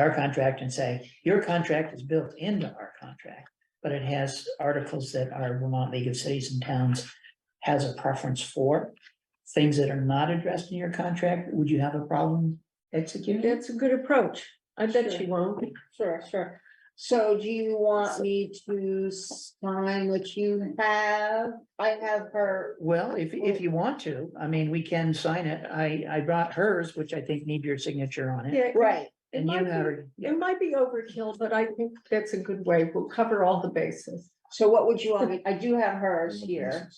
our contract and say, your contract is built into our contract. But it has articles that our Vermont League of Cities and Towns has a preference for. Things that are not addressed in your contract, would you have a problem executing? That's a good approach. I bet Sure. you won't. Sure, sure. So do you want me to sign what you have? I have her, Well, if, if you want to, I mean, we can sign it. I, I brought hers, which I think need your signature on it. Yeah, right, it And might you be- have, yeah, It might be overkill, but I think that's a good way. We'll cover all the bases. so what would you want me, I do have hers here.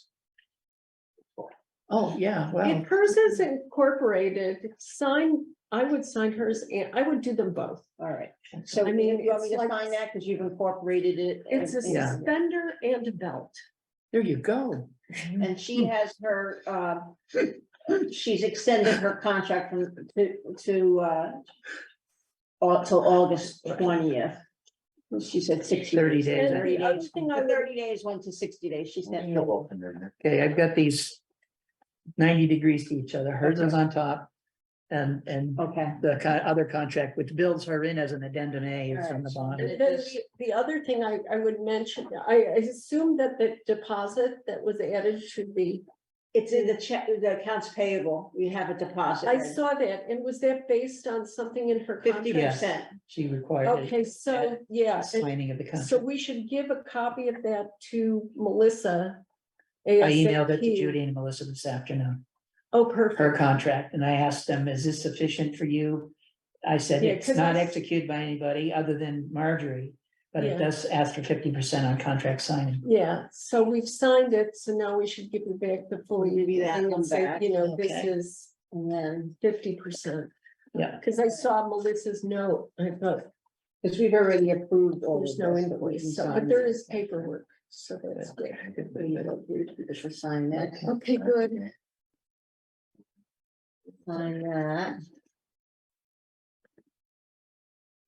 oh, yeah, well, If hers is incorporated, sign, I would sign hers and I would do them both. All right, so I you mean, want me it's to like- sign that because you've incorporated it? and- It's a Yeah. suspender and a belt. there you go. And she has her, um, she's extended her contract from, to, to, uh, au- till August twentieth. She said sixty. 30 days, I Thirty think. days, Other thing I would- thirty days, went to sixty days, she said. Okay, I've got these ninety degrees to each other. Hers is on top. And, and Okay, the co- other contract, which builds her in as an addendum A is on the And bottom. it then is- the- The other thing I, I would mention, I I assume that the deposit that was added should be, it's in the check, the accounts payable, we have a deposit. I saw that. And was that based on something in her Fifty contract? Yes. percent, She required it, Okay, so, yeah. and- signing of the So contract. we should give a copy of that to Melissa. I emailed it to ASAP. Judy and Melissa this afternoon, Oh, her perfect. contract, and I asked them, is this sufficient for you? I said, Yeah, it's 'cause not I- executed by anybody other than Marjorie, but Yeah. it does ask for fifty percent on contract signing. Yeah, so we've signed it, so now we should give it back the full. Give you that and one say, back, You know, this okay. is and then, fifty percent. Yeah. Cause I saw Melissa's note, I thought because we've already approved all of there's this. no but we can invoice, so, but sign there it. is paperwork, so that's good. We we should sign that. Okay, good. Sign that.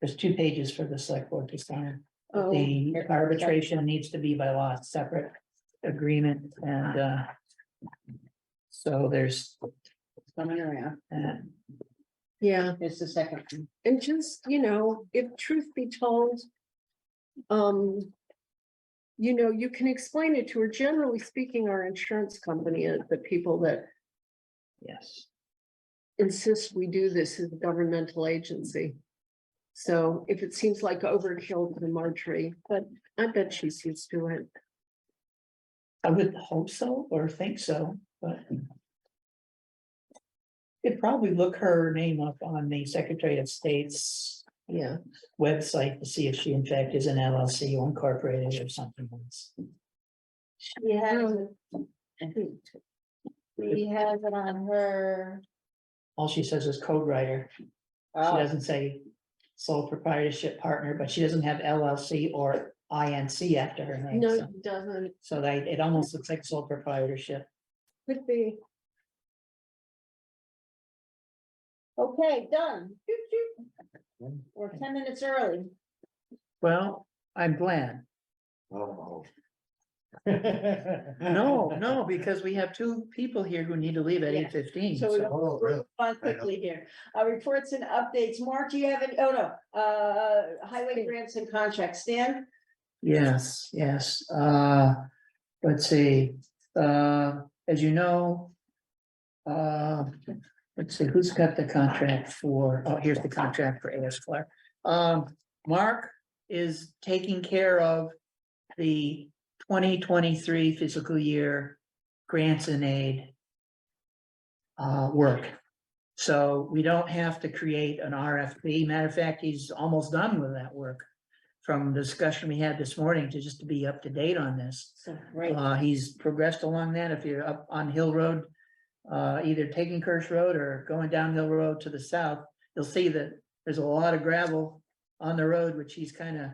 There's two pages for the select board to sign. Oh, The arbitration needs to be by law, separate agreement and uh. So there's Coming around. that. yeah, It's the second. one. and just, you know, if truth be told. Um. You know, you can explain it to her. Generally speaking, our insurance company, uh, the people that Yes, insist we do this as a governmental agency. So if it seems like overkill to Marjorie, but I bet she's used to it. I would hope so or think so, but. Could probably look her name up on the Secretary of State's Yeah, website to see if she in fact is an LLC or incorporated or something else. She has, it- she has it on her. All she says is code writer. She Oh, doesn't say sole proprietorship partner, but she doesn't have LLC or INC after her name. no, so- it doesn't. So they, it almost looks like sole proprietorship. Could be. Okay, done. Doot, doot. We're ten minutes early. Well, I'm glad. No, No, no, because we have two people here who need to leave at Yeah. eight fifteen. So we So Oh, really? go on quickly here. Uh, reports and updates. Mark, do you have any? Oh, no, uh, highway grants and contracts. Stan? Yes, yes, uh, let's see, uh, as you know. Uh, let's see, who's got the contract for, oh, here's the contract for AS Flare. Um, Mark is taking care of the twenty twenty-three fiscal year grants and aid. Uh, work, so we don't have to create an RFP, matter of fact, he's almost done with that work from the discussion we had this morning to just to be up to date on this. Right. Uh, he's progressed along that. If you're up on Hill Road, uh, either taking Kirsch Road or going down Hill Road to the south, you'll see that there's a lot of gravel on the road, which he's kind of,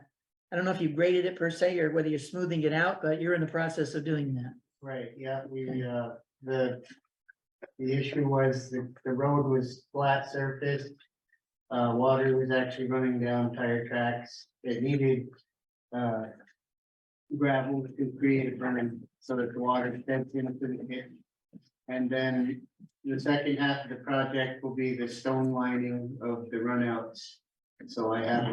I don't know if you graded it per se or whether you're smoothing it out, but you're in the process of doing that. Right, yeah, we, uh, the, the issue was the, the road was flat surface. Uh, water was actually running down tire tracks. It needed, uh, gravel to create a berm so that the water steps in and couldn't hit. And then the second half of the project will be the stone lining of the runouts So I have